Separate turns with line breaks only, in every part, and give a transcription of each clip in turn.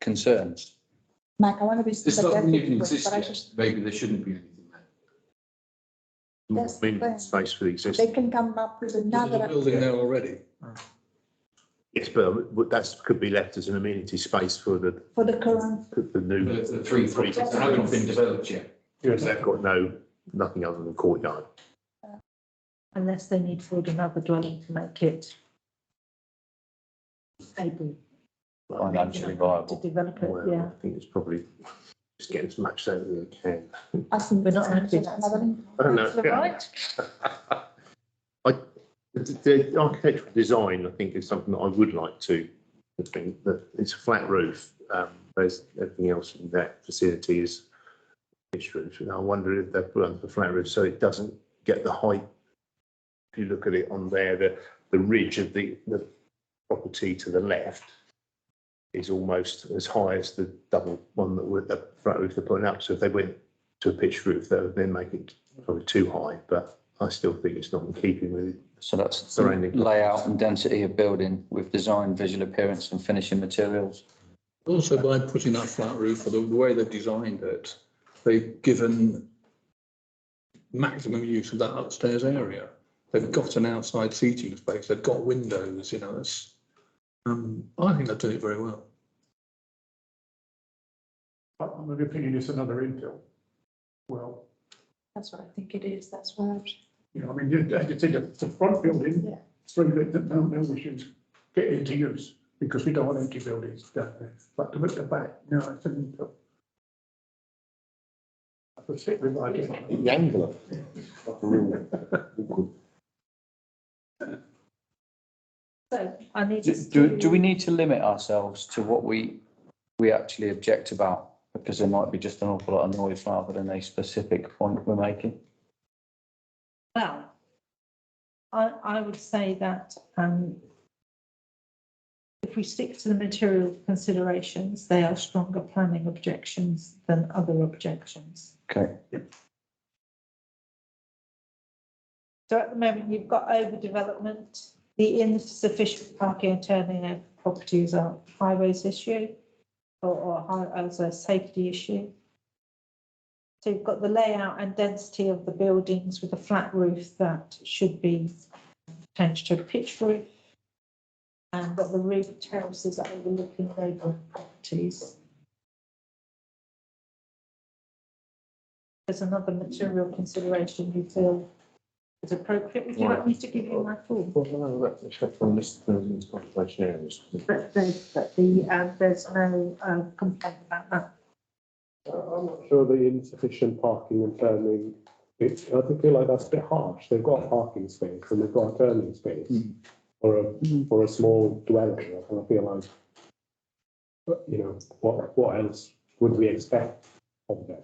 concerns?
Mike, I want to be
It's not
sympathetic,
even
with you,
exist
but I
yet,
just,
maybe there shouldn't be anything there.
more
That's the
meaningful
thing.
space for the
they
existing.
can come up with
There's a
another,
building there already.
Yes, but but that's could be left as an amenity space for the,
for the current,
the new,
The, the three properties that haven't been developed yet.
they've got no, nothing other than courtyard.
unless they need food and other dwelling to make it stable.
Financially
To
viable.
develop it,
Well,
yeah.
I think it's probably just get as much out as they can.
I think.
We're not happy.
Another,
I don't know.
Councillor Wright?
I, the, the architectural design, I think, is something that I would like to, I think, that it's a flat roof. Um, there's everything else in that facility is pitch roof. And I wonder if they've put on the flat roof so it doesn't get the height. If you look at it on there, the, the ridge of the, the property to the left is almost as high as the double one that with the flat roof they're putting up. So if they went to a pitch roof, that would then make it probably too high, but I still think it's not in keeping with
So that's
Surrounding.
layout and density of building with design, visual appearance and finishing materials.
Also, by putting that flat roof, or the the way they've designed it, they've given maximum use of that upstairs area. They've got an outside seating space, they've got windows, you know, it's, um, I think they've done it very well.
I'm of the opinion it's another infill. Well,
that's what I think it is, that's why. I've-
you know, I mean, you, you take a, the front
Yeah.
building, through that, that no, no issues, get into use, because we don't want empty buildings down there. But to look at the back, no, it's an infill. I perceive it like it.
the angle of it. Like a real-
So I need.
Do-
us
Do,
to-
do we need to limit ourselves to what we, we actually object about? Because there might be just an awful lot of noise rather than a specific point we're making.
Well, I, I would say that, um, if we stick to the material considerations, they are stronger planning objections than other objections.
Okay.
So at the moment, you've got overdevelopment, the insufficient parking and turning of properties are highways issue or, or hi- as a safety issue. So you've got the layout and density of the buildings with a flat roof that should be changed to a pitch roof. And got the roof terraces that overlooking neighbouring properties. There's another material consideration you feel is appropriate. Would you like me to give you my full?
Well, no, that's a check from this person's contemplation areas.
But the, but the, uh, there's no, uh, complaint about that.
Uh, I'm not sure the insufficient parking and turning, it, I think feel like that's a bit harsh. They've got a parking space and they've got a turning space for a, for a small dwelling. I kind of feel like, but, you know, what, what else would we expect of them?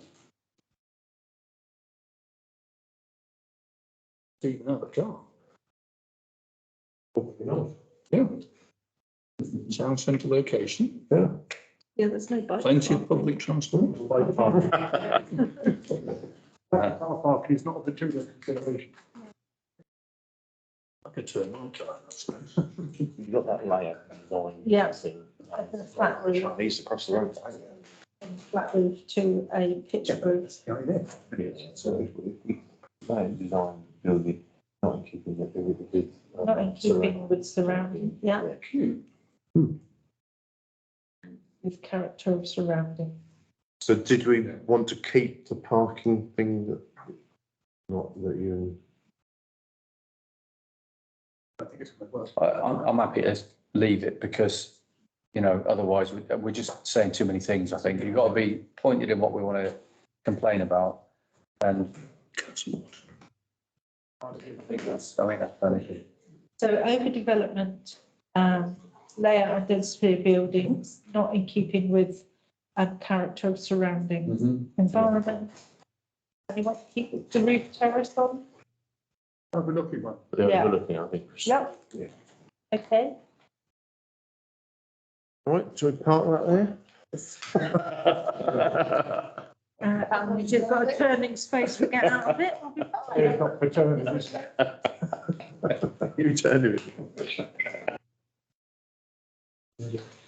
Even out the car,
Probably not.
yeah. Town centre location,
Yeah, there's no bike.
plenty of public transport.
Bike park.
Uh,
Car parking is not a material consideration.
I could turn my car, I suppose.
You've got that layer line.
Yeah.
thing.
Of the flat roof.
uh, Chinese across the road.
Flat roof to a pitch roof.
So that design building, not in keeping with everything.
Not in keeping with surrounding, yeah, with character of surrounding.
So did we want to keep the parking thing that, not that you,
I think it's gonna work.
I, I'm, I'm happy to leave it because, you know, otherwise we- we're just saying too many things, I think. You've got to be pointed in what we want to complain about. And I think that's, I think that's an issue.
So overdevelopment, um, layout and density of buildings, not in keeping with a character of surrounding
Mm-hmm.
Mm.
environment. And you want to keep the roof terrace on?
Overlooking one.
they
Yeah.
were looking, I think.
Yep.
Yeah.
Okay,
All right, do we park that
uh, and we just got a turning space to get out of it, we'll be fine.
It's not for turning, is it?
there? You turn it.